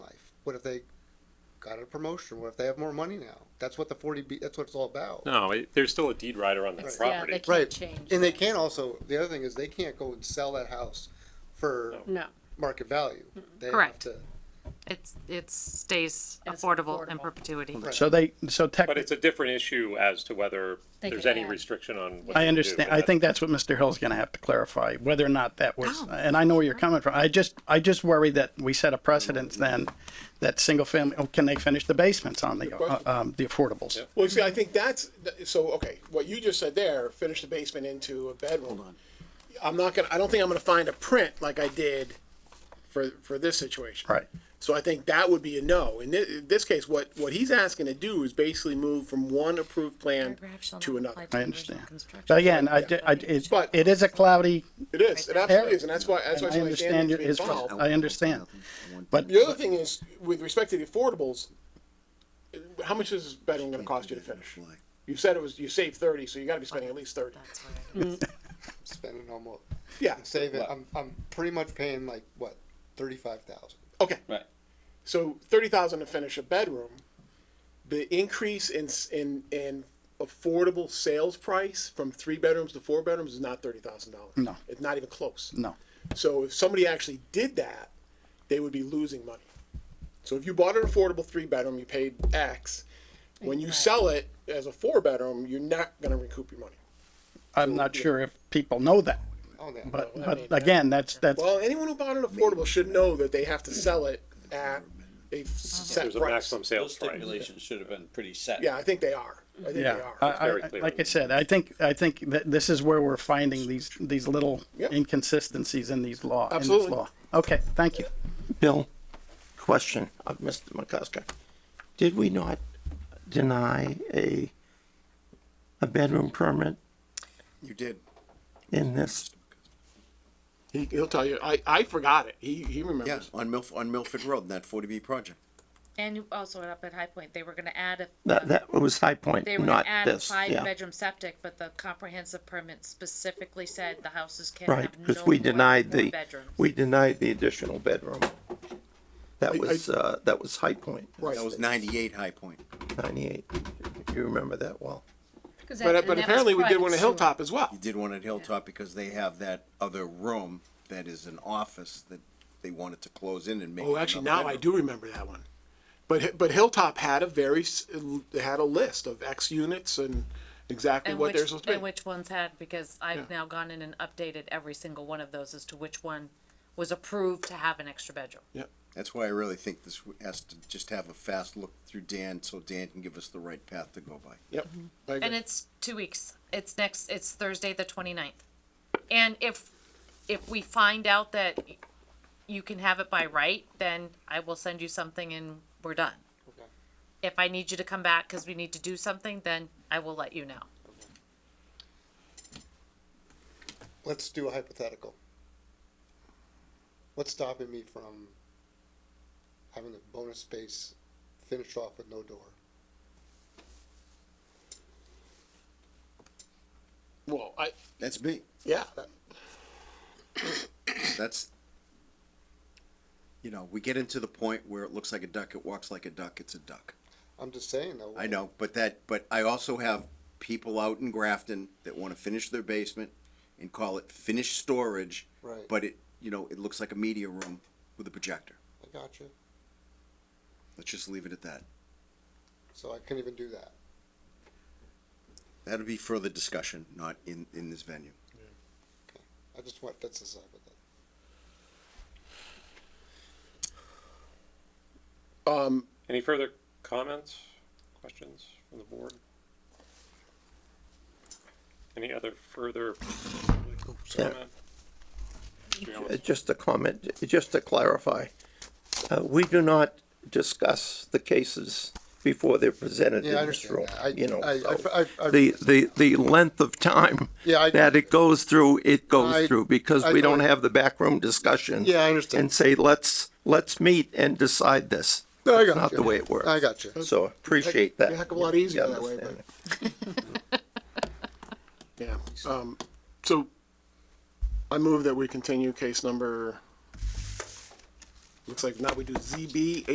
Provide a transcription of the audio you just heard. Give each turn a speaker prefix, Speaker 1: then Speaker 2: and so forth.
Speaker 1: What if they got a promotion? What if they have more money now? That's what the forty B. That's what it's all about.
Speaker 2: No, it- there's still a deed rider on that
Speaker 1: Right.
Speaker 3: Yeah,
Speaker 2: property.
Speaker 3: they
Speaker 1: Right.
Speaker 3: can't change.
Speaker 1: And they can't also. The other thing is they can't go and sell that house for
Speaker 2: No.
Speaker 3: No,
Speaker 1: market value. They
Speaker 4: Correct.
Speaker 1: Have to,
Speaker 4: It's, it stays
Speaker 3: And it's
Speaker 4: affordable in
Speaker 3: affordable.
Speaker 4: perpetuity.
Speaker 1: Right.
Speaker 5: So they, so
Speaker 2: But
Speaker 5: tech,
Speaker 2: it's a different issue as to whether
Speaker 3: They
Speaker 2: there's
Speaker 3: can
Speaker 2: any
Speaker 3: add.
Speaker 2: restriction on what they
Speaker 5: I
Speaker 2: can do,
Speaker 5: understand,
Speaker 2: but
Speaker 5: I think that's what Mr. Hill's gonna have to clarify, whether or not that was,
Speaker 4: Oh.
Speaker 5: and I know where you're coming from. I just, I just worry that we set a precedence then, that single family, oh, can they finish the basements on the, uh,
Speaker 6: question.
Speaker 5: um, the affordables?
Speaker 6: Well, see, I think that's, so, okay, what you just said there, finish the basement into a bedroom. I'm not gonna, I don't think I'm gonna find a print like I did for, for this situation.
Speaker 5: Right.
Speaker 6: So I think that would be a no. In this, in this case, what, what he's asking to do is basically move from one approved plan to another.
Speaker 5: I understand. But again, I, di- I, it,
Speaker 6: But-
Speaker 5: it is a cloudy,
Speaker 6: It is, it absolutely is, and that's why, that's
Speaker 5: and
Speaker 6: why.
Speaker 5: I
Speaker 6: it's like Dan
Speaker 5: understand
Speaker 6: needs to be
Speaker 5: his,
Speaker 6: involved.
Speaker 5: I understand. But
Speaker 6: The other thing is, with respect to the affordables, how much is this bedroom gonna cost you to finish? You said it was, you saved thirty, so you gotta be spending at least thirty.
Speaker 1: spending almost.
Speaker 6: Yeah,
Speaker 1: I'm saving. I'm, I'm pretty much paying like what thirty five thousand.
Speaker 6: okay.
Speaker 7: Right.
Speaker 6: So thirty thousand to finish a bedroom. The increase in s- in in affordable sales price from three bedrooms to four bedrooms is not thirty thousand dollars.
Speaker 5: No.
Speaker 6: it's not even close.
Speaker 5: No.
Speaker 6: So if somebody actually did that, they would be losing money. So if you bought an affordable three bedroom, you paid X. When you sell it as a four bedroom, you're not going to recoup your money.
Speaker 5: I'm not sure if people know that.
Speaker 1: Oh, yeah.
Speaker 5: But, but again, that's, that's,
Speaker 6: Well, anyone who bought an affordable should know that they have to sell it at a f- set
Speaker 2: There's a
Speaker 6: price.
Speaker 2: maximum
Speaker 7: Those
Speaker 2: sales price.
Speaker 7: stipulations should have been pretty set.
Speaker 6: Yeah, I think they are. I think
Speaker 5: yeah.
Speaker 6: they are.
Speaker 5: I,
Speaker 2: very
Speaker 5: I,
Speaker 2: clear.
Speaker 5: like I said, I think, I think that this is where we're finding these, these little
Speaker 6: Yep.
Speaker 5: inconsistencies in these law, in this
Speaker 6: Absolutely.
Speaker 5: law. Okay, thank you.
Speaker 8: Bill, question
Speaker 6: uh,
Speaker 8: of Mr. McCusker. Did we not deny a, a bedroom permit
Speaker 9: You did.
Speaker 8: in this?
Speaker 6: He, he'll tell you. I, I forgot it. He, he
Speaker 9: Yes,
Speaker 6: remembers.
Speaker 9: on Milf, on Milford Road, in that forty B project.
Speaker 10: And also up at High Point, they were gonna add a,
Speaker 8: That, that was High Point,
Speaker 10: they were gonna
Speaker 8: not
Speaker 10: add a
Speaker 8: this, yeah.
Speaker 10: five-bedroom septic, but the comprehensive permit specifically said the houses can have no
Speaker 8: Right, because we
Speaker 10: more than
Speaker 8: denied
Speaker 10: four
Speaker 8: the,
Speaker 10: bedrooms.
Speaker 8: we denied the additional bedroom.
Speaker 6: I-
Speaker 8: That
Speaker 6: I-
Speaker 8: was, uh, that was High Point.
Speaker 6: Right.
Speaker 8: That
Speaker 6: That
Speaker 8: was
Speaker 9: That was ninety-eight High Point.
Speaker 8: ninety-eight. You remember that well.
Speaker 6: But, but apparently we did one at Hilltop as well.
Speaker 9: You did one at Hilltop because they have that other room that is an office that they wanted to close in and make.
Speaker 6: Oh, actually,
Speaker 9: another
Speaker 6: now I
Speaker 9: bedroom.
Speaker 6: do remember that one. But Hi- but Hilltop had a very s- had a list of X units and exactly
Speaker 4: And
Speaker 6: what they're
Speaker 4: which,
Speaker 6: supposed to be.
Speaker 4: and which ones had, because I've now gone in and updated every single one of those as to which one was approved to have an extra bedroom.
Speaker 9: That's why I really think this has to just have a fast look through Dan, so Dan can give us the right path to go by.
Speaker 6: yep. I agree.
Speaker 4: And it's two weeks. It's next, it's Thursday, the twenty-ninth. And if, if we find out that you can have it by right, then I will send you something and we're done.
Speaker 1: Okay.
Speaker 4: If I need you to come back because we need to do something, then I will let you know.
Speaker 1: Let's do a hypothetical. What's stopping me from having the bonus space finished off with no door?
Speaker 6: well, I
Speaker 9: That's me.
Speaker 6: yeah. that-
Speaker 9: That's, you know, we get into the point where it looks like a duck, it walks like a duck, it's a duck.
Speaker 1: I'm just saying though.
Speaker 9: I know, but that, but I also have people out in Grafton that want to finish their basement and call it finished storage.
Speaker 1: Right.
Speaker 9: But it, you know, it looks like a media room with a projector.
Speaker 1: I got you.
Speaker 9: Let's just leave it at that.
Speaker 1: So I couldn't even do that.
Speaker 9: That'll be further discussion, not in, in this venue.
Speaker 1: I just want that's the side with it.
Speaker 6: Um,
Speaker 2: Any further comments, questions from the board? Any other further
Speaker 8: Yeah.
Speaker 2: comment?
Speaker 8: Uh, Just a comment, j- just to clarify, uh, we do not discuss the cases before they're presented
Speaker 1: Yeah, I
Speaker 8: in this
Speaker 1: understand
Speaker 8: room.
Speaker 1: that. I-
Speaker 8: You know,
Speaker 1: I-
Speaker 8: so
Speaker 1: I- I- I-
Speaker 8: the, the, the length of time
Speaker 1: Yeah, I-
Speaker 8: that it goes through,
Speaker 1: I-
Speaker 8: it goes through, because
Speaker 1: I
Speaker 8: we don't
Speaker 1: thought-
Speaker 8: have the backroom discussion.
Speaker 1: Yeah, I understand.
Speaker 8: And say, let's, let's meet and decide this.
Speaker 1: No, I
Speaker 8: That's
Speaker 1: got
Speaker 8: Not
Speaker 1: you.
Speaker 8: the way it works.
Speaker 1: I got you.
Speaker 8: So appreciate that.
Speaker 6: a heck of a lot easier that way, but-
Speaker 8: Understand.
Speaker 6: yeah. Um, so I move that we continue case number. Looks like now we do ZB